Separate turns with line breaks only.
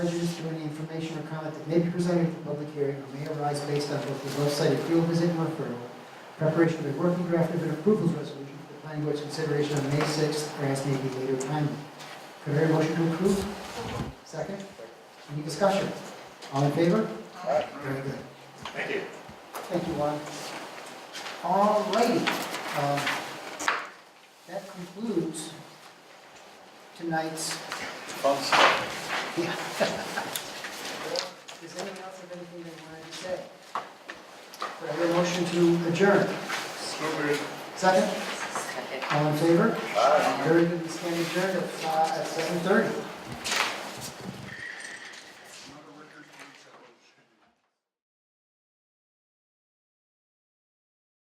prejudice to any information or comment that may be presented at the public hearing or may arise based on both the above-cited field visit and referral, preparation of a working draft of an approvals resolution for the planning board's consideration on May 6th, or as may be later timely. Could I hear a motion to approve? Second? Any discussion? All in favor?
Aye.
Very good.
Thank you.
Thank you, Juan. All righty. um, That concludes tonight's Yeah. Does anyone else have anything they wanted to say? Could I hear a motion to adjourn? Second? All in favor? Very good, we stand adjourned at, uh, at seven thirty.